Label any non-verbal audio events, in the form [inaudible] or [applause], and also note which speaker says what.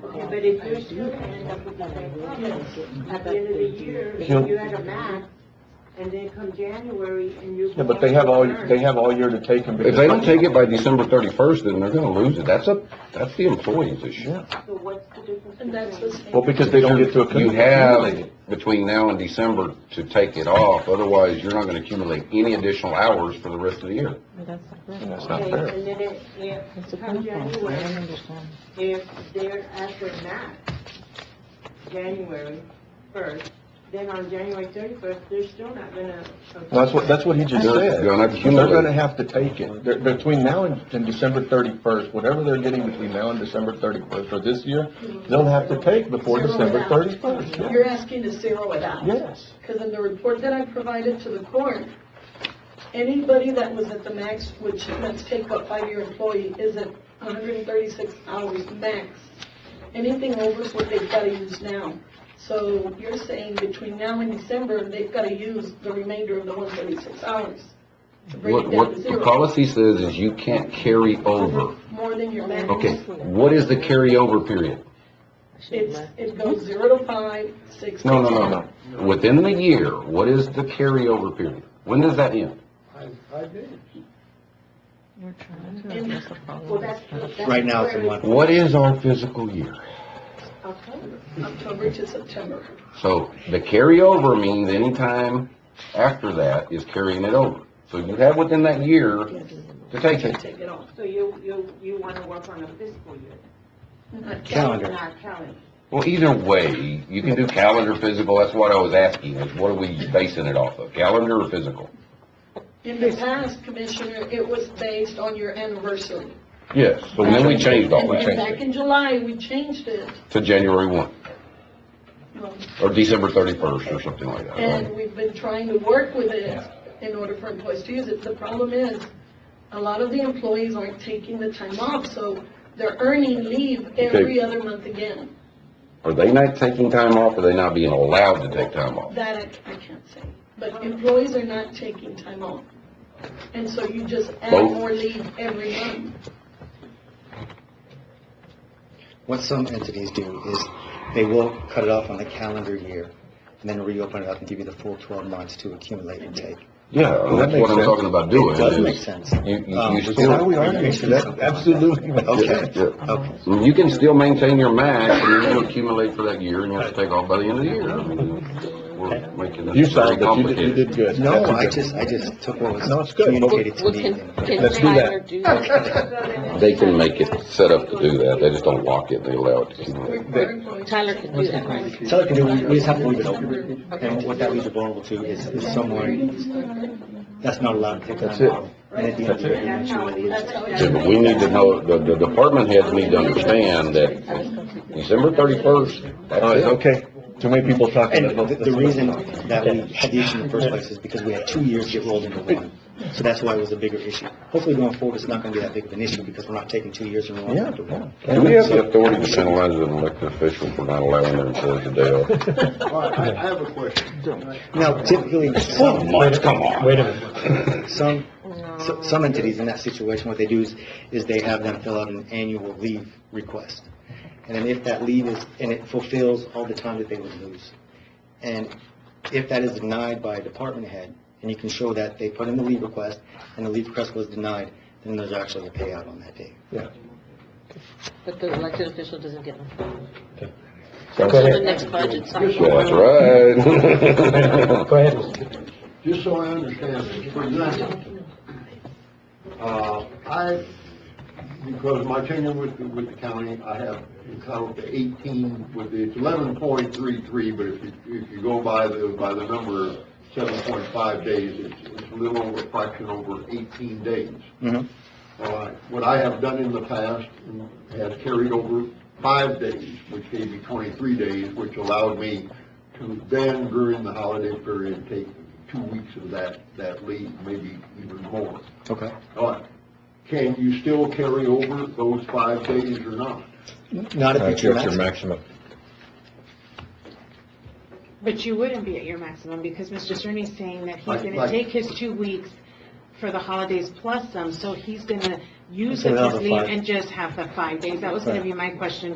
Speaker 1: But if you're still gonna end up with another problem, at the end of the year, if you're at a max, and then come January and you're.
Speaker 2: Yeah, but they have all, they have all year to take them.
Speaker 3: If they don't take it by December thirty-first, then they're gonna lose it. That's a, that's the employee's issue.
Speaker 1: So what's the difference?
Speaker 4: And that's the
Speaker 1: between-
Speaker 4: same.
Speaker 2: Well, because they don't get to
Speaker 3: You
Speaker 2: accumulate.
Speaker 3: have between now and December to take it off, otherwise you're not gonna accumulate any additional hours for the rest of the year.
Speaker 2: That's not
Speaker 1: Okay,
Speaker 2: fair.
Speaker 1: and then it, if, come January, if they're at their max, January first, then on January thirty-first, they're still not gonna.
Speaker 2: That's what, that's what he just
Speaker 3: They're-
Speaker 2: said.
Speaker 3: they're gonna have to
Speaker 2: They're
Speaker 3: accumulate.
Speaker 2: gonna have to take it. They're- Between now and, and December thirty-first, whatever they're getting between now and December thirty-first for this year, they'll have to take before
Speaker 4: Zero it
Speaker 2: December
Speaker 4: out.
Speaker 2: thirty-first.
Speaker 4: You're asking to zero it out.
Speaker 2: Yes.
Speaker 4: Because in the report that I provided to the court, anybody that was at the max, which, let's take what five-year employee is at hundred and thirty-six hours max. Anything over is what they've gotta use now. So you're saying between now and December, they've gotta use the remainder of the one thirty-six hours to bring
Speaker 3: What,
Speaker 4: it down
Speaker 3: what
Speaker 4: to
Speaker 3: the
Speaker 4: zero.
Speaker 3: policy says is you can't carry over.
Speaker 4: More than your max.
Speaker 3: Okay, what is the carryover period?
Speaker 4: It's, it goes zero to five, six to
Speaker 3: No, no,
Speaker 4: ten.
Speaker 3: no, no. Within the year, what is the carryover period? When does that end?
Speaker 1: Well, that's. that's
Speaker 5: Right now, it's in
Speaker 1: where
Speaker 5: one.
Speaker 3: What is our physical year?
Speaker 1: October.
Speaker 4: October to September.
Speaker 3: So the carryover means any time after that is carrying it over. So you have within that year to take it.
Speaker 4: Take it off.
Speaker 1: So you, you, you wanna work on a fiscal year? not
Speaker 5: Calendar.
Speaker 1: Not calendar.
Speaker 3: Well, either way, you can do calendar, physical, that's what I was asking, is what are we basing it off of, calendar or physical?
Speaker 4: In the past, Commissioner, it was based on your anniversary.
Speaker 3: Yes. So then we changed all
Speaker 4: And then Back
Speaker 3: that
Speaker 4: in July, we changed it,
Speaker 3: to January one,
Speaker 4: um,
Speaker 3: or December thirty-first, or something like that, right?
Speaker 4: and we've been trying to work with it in order for employees to use it. The problem is, a lot of the employees aren't taking the time off, so they're earning leave every other month again.
Speaker 3: Are they not taking time off, or are they not being allowed to take time off?
Speaker 4: That I, I can't say, but employees are not taking time off. And so you just add
Speaker 3: Both.
Speaker 4: more leave every month.
Speaker 5: What some entities do is they will cut it off on the calendar year and then reopen it up and give you the full 12 months to accumulate and take.
Speaker 2: Yeah,
Speaker 3: Well,
Speaker 2: well, that
Speaker 3: That's
Speaker 2: makes
Speaker 3: what I'm
Speaker 2: sense.
Speaker 3: talking about doing.
Speaker 5: It does
Speaker 3: is
Speaker 5: make sense.
Speaker 3: You, you,
Speaker 5: Um,
Speaker 3: you
Speaker 5: so
Speaker 2: Why are
Speaker 3: still.
Speaker 2: we arguing? That absolutely makes
Speaker 5: Okay,
Speaker 3: Yeah, yeah.
Speaker 5: okay.
Speaker 3: You can still maintain your max, and then you accumulate for that year, and you have to take off by the end of the year. I mean, we're making this
Speaker 2: You
Speaker 3: very
Speaker 2: sound, but you did, you
Speaker 3: complicated.
Speaker 2: did good.
Speaker 5: No,
Speaker 2: That's a
Speaker 5: I
Speaker 2: good-
Speaker 5: just, I just took what
Speaker 2: No,
Speaker 5: was
Speaker 2: it's good.
Speaker 5: communicated to
Speaker 6: Well,
Speaker 5: me.
Speaker 6: can, can
Speaker 2: Let's do that.
Speaker 6: Tyler do that?
Speaker 3: They can make it set up to do that, they just don't lock it, they allow it to accumulate.
Speaker 4: Our employees-
Speaker 6: Tyler can do that, right?
Speaker 5: So like, we we just have to leave it open. And what that leaves it vulnerable to is is someone that's not allowed to take
Speaker 2: That's
Speaker 5: time
Speaker 2: it.
Speaker 5: off. And at the end of the year, you actually lose.
Speaker 4: That's how it
Speaker 3: Yeah, but we need to know, the, the department heads need to understand that December thirty-first,
Speaker 2: All right,
Speaker 3: that's it.
Speaker 2: okay. Too many people talking.
Speaker 5: And
Speaker 2: Let's-
Speaker 5: the- the
Speaker 2: let's-
Speaker 5: reason that we had the issue in the first place is because we had two years get rolled into one. So that's why it was a bigger issue. Hopefully going forward, it's not going to be that big of an issue because we're not taking two years and rolling
Speaker 2: Yeah,
Speaker 5: it into one.
Speaker 3: Do we have the authority to penalize an elected official for not allowing their employees to day [laughs] off?
Speaker 7: I, I have a question.
Speaker 5: Now typically, some,
Speaker 3: Mike, come on. Wait a minute.
Speaker 5: [laughs] some, so- some entities in that situation, what they do is, is they have them fill out an annual leave request. And then if that leave is, and it fulfills all the time that they would lose. And if that is denied by a department head, and you can show that they put in the leave request, and the leave request was denied, then there's actually a payout on that day.
Speaker 6: But the elected official doesn't get them.
Speaker 2: Go
Speaker 6: Until the
Speaker 2: ahead.
Speaker 6: next budget cycle.
Speaker 3: That's right. [laughs]
Speaker 2: Go ahead.
Speaker 7: Just so I understand this, for example, uh, I, because my tenure with, the- with the county, I have entitled to eighteen, with the eleven point three three, but if you, if you go by the, by the number, seven point five days, it's, it's a little over, a fraction over eighteen days.
Speaker 5: Mhm.
Speaker 7: All right. What I have done in the past has carried over five days, which gave me twenty-three days, which allowed me to then, during the holiday period, take two weeks of that, that leave, maybe even more.
Speaker 5: Okay.
Speaker 7: All right. Can you still carry over those five days or not?
Speaker 5: Not if
Speaker 2: That's
Speaker 5: it's your
Speaker 2: your maximum.
Speaker 5: maximum.
Speaker 8: But you wouldn't be at your maximum because Mr. Cerny's saying that he's
Speaker 7: Like-
Speaker 8: gonna
Speaker 7: like-
Speaker 8: take his two weeks for the holidays plus some, so he's gonna use
Speaker 5: So
Speaker 8: up
Speaker 5: another
Speaker 8: his leave
Speaker 5: five.
Speaker 8: and just have the five days. That was gonna
Speaker 5: Right.
Speaker 8: be my question